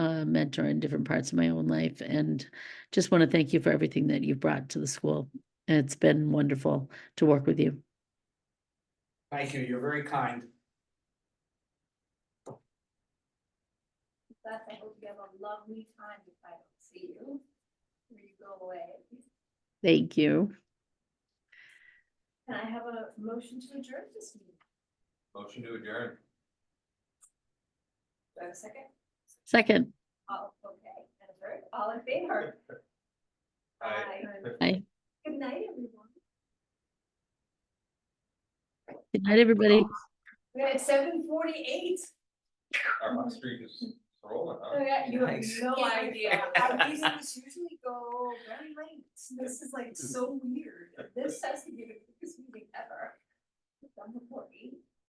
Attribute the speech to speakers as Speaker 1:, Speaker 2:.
Speaker 1: uh, mentor in different parts of my own life. And just want to thank you for everything that you've brought to the school. And it's been wonderful to work with you.
Speaker 2: Thank you, you're very kind.
Speaker 3: Beth, I hope oh, you have a lovely time if I don't see you. When you go away.
Speaker 1: Thank you.
Speaker 3: Can I have a motion to adjourn this meeting?
Speaker 2: Motion to adjourn.
Speaker 3: Do I have a second?
Speaker 1: Second,
Speaker 3: All, okay, and a third, all in favor?
Speaker 2: Aye.
Speaker 1: Aye.
Speaker 3: Good night, everyone.
Speaker 1: good night, everybody.
Speaker 3: We're at seven forty-eight.
Speaker 4: Our bus street is rolling, huh?
Speaker 3: Oh, You have
Speaker 2: Oh, Nice.
Speaker 3: no idea. Our meetings usually go very late. This is like so weird. This has to be the quickest meeting ever. Done before eight.